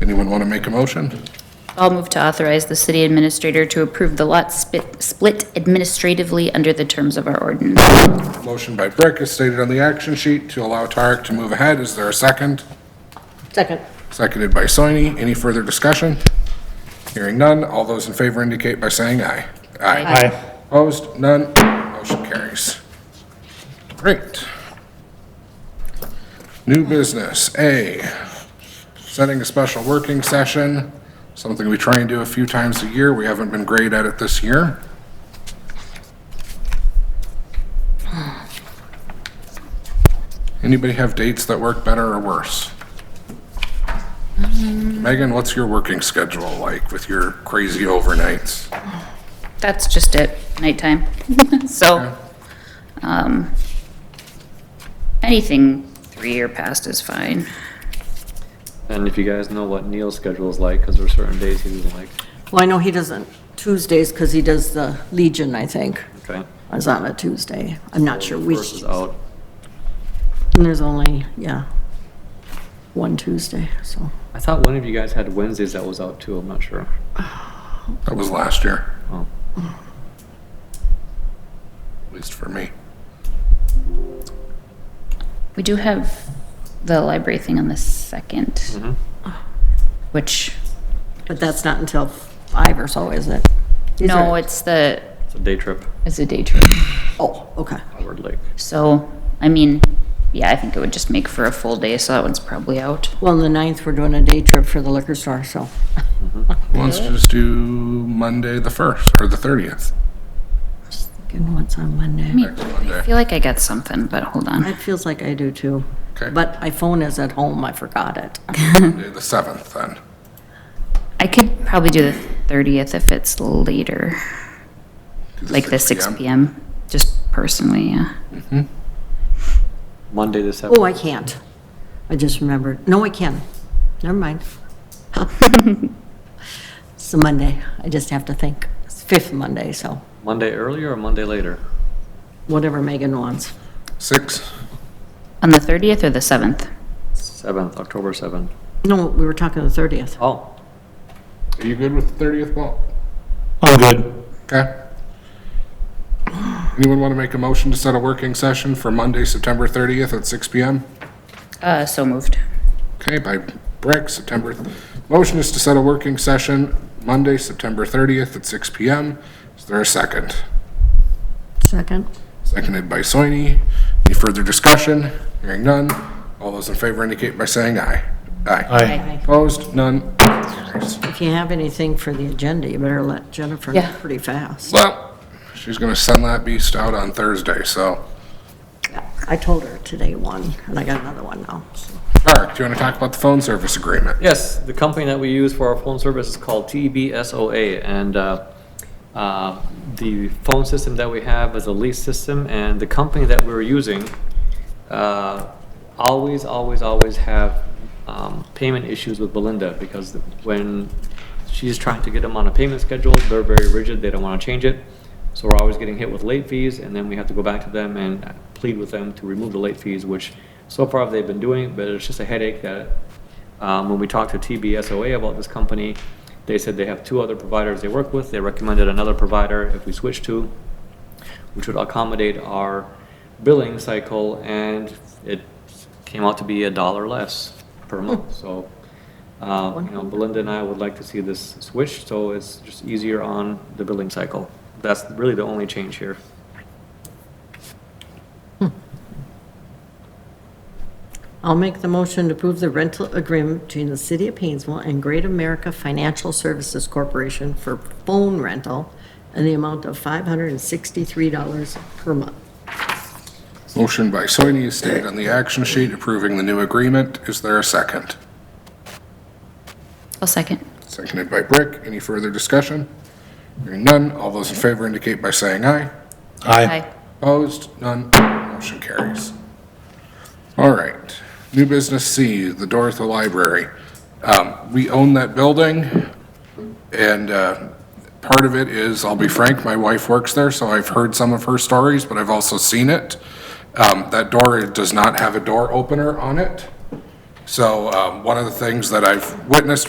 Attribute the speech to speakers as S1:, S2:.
S1: Anyone want to make a motion?
S2: I'll move to authorize the city administrator to approve the lot spit- split administratively under the terms of our ordinance.
S1: Motion by Brick is stated on the action sheet to allow Tarek to move ahead. Is there a second?
S3: Second.
S1: Seconded by Soini. Any further discussion? Hearing none. All those in favor indicate by saying aye. Aye.
S4: Aye.
S1: Opposed? None. Motion carries. Great. New business, A, setting a special working session, something we try and do a few times a year. We haven't been great at it this year. Anybody have dates that work better or worse? Megan, what's your working schedule like with your crazy overnights?
S2: That's just it, nighttime. So, um, anything three or past is fine.
S5: And if you guys know what Neil's schedule is like, because there are certain days he doesn't like,
S3: Well, I know he doesn't Tuesdays because he does the Legion, I think,
S5: okay?
S3: is on a Tuesday. I'm not sure which.
S5: First is out,
S3: And there's only, yeah, one Tuesday, so.
S5: I thought one of you guys had Wednesdays that was out too, I'm not sure.
S1: That was last year,
S5: Oh,
S1: at least for me.
S2: We do have the library thing on the second, which,
S3: But that's not until five or so, is it?
S2: no, it's the,
S5: it's a day trip,
S2: it's a day trip.
S3: Oh, okay.
S5: Howard Lake.
S2: So, I mean, yeah, I think it would just make for a full day, so that one's probably out.
S3: Well, on the ninth, we're doing a day trip for the liquor store, so.
S1: Well, Let's just do Monday the 1st or the 30th.
S3: Just thinking what's on Monday.
S1: Next Monday.
S2: I feel like I got something, but hold on.
S3: It feels like I do too.
S1: Okay.
S3: But my phone is at home, I forgot it.
S1: Monday the 7th then.
S2: I could probably do the thirtieth if it's later,
S1: Do
S2: like the six
S1: p.m.
S2: PM, just personally, yeah.
S5: Monday the seventh.
S3: Oh, I can't. I just remembered. No, I can. Never mind. It's a Monday. I just have to think. It's fifth Monday, so
S5: Monday earlier or Monday later?
S3: whatever Megan wants.
S1: Six.
S2: On the thirtieth or the seventh?
S5: Seventh, October seventh.
S3: No, we were talking the thirtieth.
S5: Oh,
S1: Are you good with the 30th, Paul?
S4: I'm good.
S1: Okay. Anyone want to make a motion to set a working session for Monday, September 30th at six p.m.?
S2: Uh, so moved.
S1: Okay, by Brick, September, motion is to set a working session Monday, September 30th at six p.m. Is there a second?
S3: Second?
S1: Seconded by Soini. Any further discussion? Hearing none. All those in favor indicate by saying aye. Aye.
S4: Aye.
S1: Opposed? None.
S3: If you have anything for the agenda, you better let Jennifer know
S2: Yeah.
S3: pretty fast.
S1: Well, she's gonna send that beast out on Thursday, so.
S3: I told her today one, and I got another one now. so.
S1: Tarek, do you wanna talk about the phone service agreement?
S5: yes, the company that we use for our phone service is called E TBSOA, and uh, uh, the phone system that we have is a lease system, and the company that we're using uh, always, always, always have um, payment issues with Belinda, because when she's trying to get them on a payment schedule, they're very rigid, they don't want to change it, so we're always getting hit with late fees, and then we have to go back to them and plead with them to remove the late fees, which so far they've been doing, but it's just a headache that um, When we talked to TBSOA about this company, they said they have two other providers they work with. They recommended another provider if we switch to, which would accommodate our billing cycle, and it came out to be a dollar less per month. So, uh, you know, Belinda and I would like to see this switched, so it's just easier on the billing cycle. That's really the only change here.
S3: I'll make the motion to approve the rental agreement between the City of Painesville and Great America Financial Services Corporation for phone rental and the amount of $563 per month.
S1: Motion by Soini is stated on the action sheet approving the new agreement. Is there a second?
S2: I'll second.
S1: Seconded by Brick. Any further discussion? Hearing none. All those in favor indicate by saying aye.
S4: Aye.
S2: Aye.
S1: Opposed? None. Motion carries. All right. New business C, the Dorothy Library. Um, We own that building, and uh, part of it is, I'll be frank, my wife works there, so I've heard some of her stories, but I've also seen it. Um, That door does not have a door opener on it. So um, one of the things that I've witnessed